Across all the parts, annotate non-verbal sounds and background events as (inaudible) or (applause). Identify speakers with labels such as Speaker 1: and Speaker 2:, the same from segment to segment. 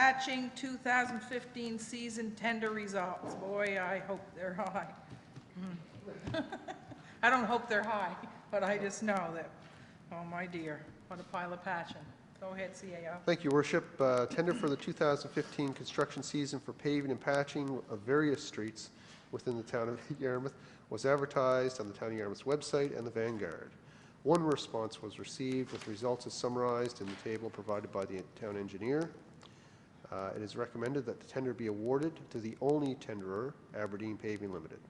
Speaker 1: Hatching 2015 season tender results. Boy, I hope they're high. (laughs) Mm. I don't hope they're high, but I just know that, oh my dear, what a pile of passion. Go ahead, CAO.
Speaker 2: Thank you, Worship. Uh, Tender for the 2015 construction season for paving and patching of various streets within the town of (laughs) Yarmouth was advertised on the Town of Yarmouth's website and the Vanguard. One response was received with results as summarized in the table provided by the town engineer. Uh, It is recommended that the tender be awarded to the only tenderer, Aberdeen Paving Limited.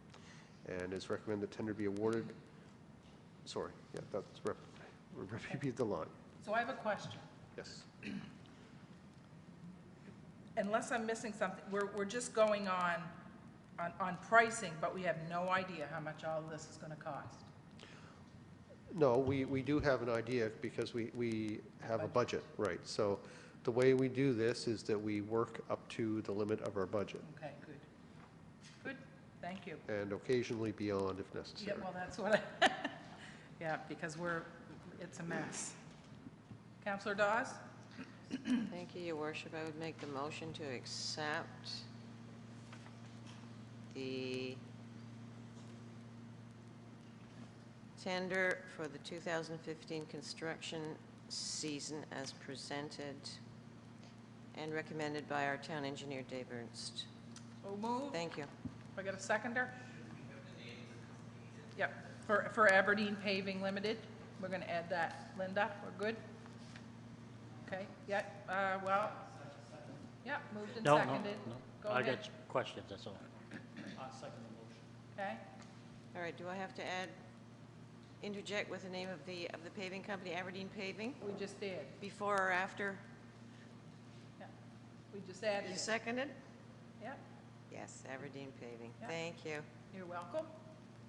Speaker 2: And it's recommended the tender be awarded, sorry, yeah, that's, rep- (laughs) repeat the line,
Speaker 1: So I have a question.
Speaker 2: yes.
Speaker 1: Unless I'm missing something, we're, we're just going on, on, on pricing, but we have no idea how much all this is gonna cost.
Speaker 2: No, we, we do have an idea because we, we have a budget, right. So the way we do this is that we work up to the limit of our budget
Speaker 1: Okay, good. Good, thank you.
Speaker 2: and occasionally beyond if
Speaker 1: Yeah,
Speaker 2: necessary.
Speaker 1: well, that's what I, (laughs) yeah, because we're, it's a mess. Counselor Dawes?
Speaker 3: Thank you, your worship. I would make the motion to accept the tender for the 2015 construction season as presented and recommended by our town engineer, Dave Ernst.
Speaker 1: So moved.
Speaker 3: Thank you.
Speaker 1: I got a seconder? Yep, for, for Aberdeen Paving Limited, we're gonna add that. Linda, we're good? Okay, yeah, uh, well, yeah, moved and
Speaker 4: No, no,
Speaker 1: seconded.
Speaker 4: no.
Speaker 1: Go
Speaker 4: I
Speaker 1: ahead,
Speaker 4: got questions, that's all.
Speaker 1: okay?
Speaker 3: All right, do I have to add, interject with the name of the, of the paving company, Aberdeen Paving,
Speaker 1: We just did,
Speaker 3: before or after?
Speaker 1: yeah. We just added,
Speaker 3: You
Speaker 1: it.
Speaker 3: seconded?
Speaker 1: yeah,
Speaker 3: Yes, Aberdeen Paving.
Speaker 1: Yeah.
Speaker 3: Thank you.
Speaker 1: you're welcome.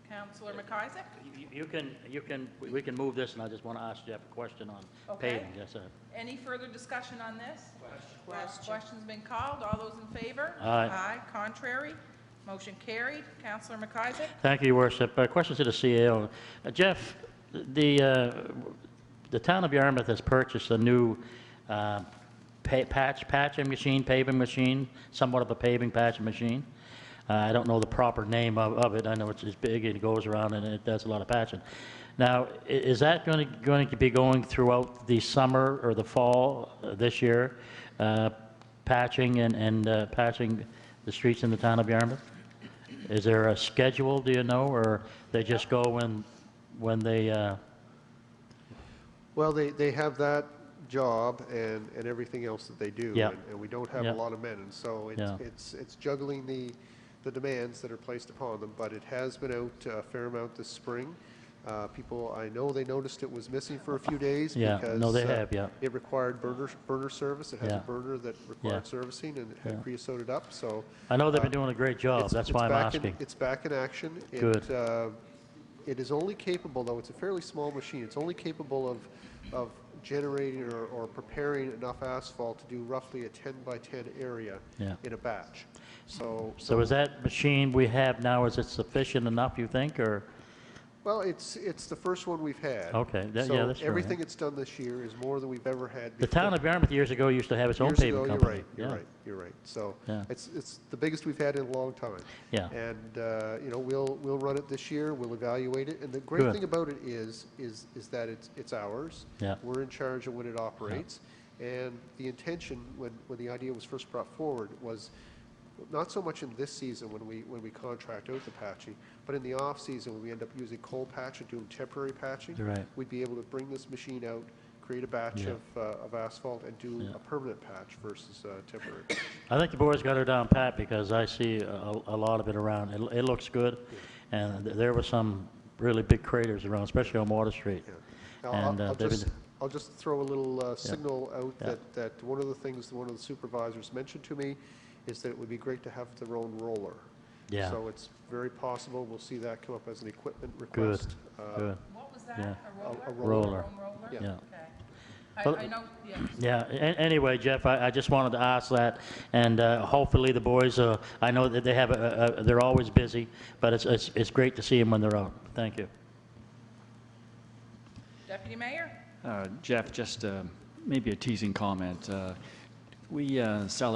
Speaker 1: Counselor McIsaac?
Speaker 4: You- You can, you can, we- we can move this, and I just want to ask Jeff a question on
Speaker 1: Okay.
Speaker 4: paving, yes, sir.
Speaker 1: Any further discussion on this? Well,
Speaker 3: Question.
Speaker 1: Question's been called. All those in favor?
Speaker 4: Aye.
Speaker 1: Contrary? Motion carried. Counselor McIsaac?
Speaker 4: Thank you, Your Worship. Uh, Question to the CEO. Uh, Jeff, the, uh, the town of Yarmouth has purchased a new uh, pa- patch, patching machine, paving machine, somewhat of a paving patching machine. Uh, I don't know the proper name of, of it. I know it's, it's big and it goes around and it does a lot of patching. Now, i- is that going to, going to be going throughout the summer or the fall uh, this year? uh, Patching and, and uh, patching the streets in the town of Yarmouth? Is there a schedule, do you know, or they just go when, when they, uh,
Speaker 2: Well, they, they have that job and, and everything else that they do.
Speaker 4: Yeah.
Speaker 2: and- And we don't have a
Speaker 4: Yeah.
Speaker 2: lot of men, and so it's,
Speaker 4: Yeah.
Speaker 2: it's, it's juggling the, the demands that are placed upon them. But it has been out uh, a fair amount this spring. Uh, People, I know they noticed it was missing for a few days
Speaker 4: Yeah,
Speaker 2: because.
Speaker 4: no, they
Speaker 2: uh,
Speaker 4: have, yeah.
Speaker 2: It required burner, burner service. It has a
Speaker 4: Yeah.
Speaker 2: burner that
Speaker 4: Yeah.
Speaker 2: required servicing and it had
Speaker 4: Yeah.
Speaker 2: creosoted up, so.
Speaker 4: I know they've been
Speaker 2: uh,
Speaker 4: doing a great job,
Speaker 2: it's-
Speaker 4: Oh, that's
Speaker 2: it's
Speaker 4: why I'm
Speaker 2: back in-
Speaker 4: asking.
Speaker 2: It's back in action. It,
Speaker 4: Good.
Speaker 2: uh, It is only capable, though, it's a fairly small machine, it's only capable of, of generating or, or preparing enough asphalt to do roughly a 10 by 10 area
Speaker 4: Yeah.
Speaker 2: in a batch. So,
Speaker 4: So is that machine we have now, is it sufficient enough, you think, or?
Speaker 2: well, it's, it's the first one we've had.
Speaker 4: Okay, that- yeah, that's
Speaker 2: So
Speaker 4: fair,
Speaker 2: everything
Speaker 4: yeah.
Speaker 2: it's done this year is more than we've ever had before.
Speaker 4: The town of Yarmouth years ago used to have its own
Speaker 2: Years ago,
Speaker 4: paving
Speaker 2: you're
Speaker 4: company.
Speaker 2: right, You're
Speaker 4: Yeah.
Speaker 2: right, you're right. So
Speaker 4: Yeah.
Speaker 2: it's, it's the biggest we've had in a long time.
Speaker 4: Yeah.
Speaker 2: And, uh, you know, we'll, we'll run it this year, we'll evaluate it. And the great
Speaker 4: Good.
Speaker 2: thing about it is, is, is that it's, it's ours.
Speaker 4: Yeah.
Speaker 2: We're in charge of when it operates. And the intention, when, when the idea was first brought forward, was not so much in this season when we, when we contract out the patching, but in the off-season when we end up using cold patch and doing temporary patching.
Speaker 4: You're right.
Speaker 2: We'd be able to bring this machine out, create a batch
Speaker 4: Yeah.
Speaker 2: of, uh, of asphalt and do
Speaker 4: Yeah.
Speaker 2: a permanent patch versus uh, temporary.
Speaker 4: I think the board's got her down pat, because I see a, a lot of it around, it, it looks good, and th- there were some really big craters around, especially on Water Street.
Speaker 2: Yeah. Now,
Speaker 4: And
Speaker 2: I'll,
Speaker 4: uh,
Speaker 2: I'll
Speaker 4: they've
Speaker 2: just,
Speaker 4: been-
Speaker 2: I'll just throw a little uh, signal out
Speaker 4: Yeah.
Speaker 2: that, that one of the things that one of the supervisors mentioned to me is that it would be great to have their own roller.
Speaker 4: Yeah.
Speaker 2: So it's very possible, we'll see that come up as an equipment request. uh,
Speaker 4: Good.
Speaker 1: What was that?
Speaker 4: Yeah.
Speaker 1: A roller?
Speaker 2: A- a
Speaker 4: roller.
Speaker 1: Foam roller?
Speaker 2: Yeah.
Speaker 4: Yeah.
Speaker 1: Okay.
Speaker 4: But-
Speaker 1: I, I know, yeah.
Speaker 4: Yeah, a- anyway, Jeff, I, I just wanted to ask that, and uh, hopefully the boys, uh, I know that they have, a- a- a- they're always busy, but it's, it's, it's great to see them when they're out. Thank you.
Speaker 1: Deputy Mayor?
Speaker 5: Uh, Jeff, just uh, maybe a teasing comment. Uh, We uh, sell our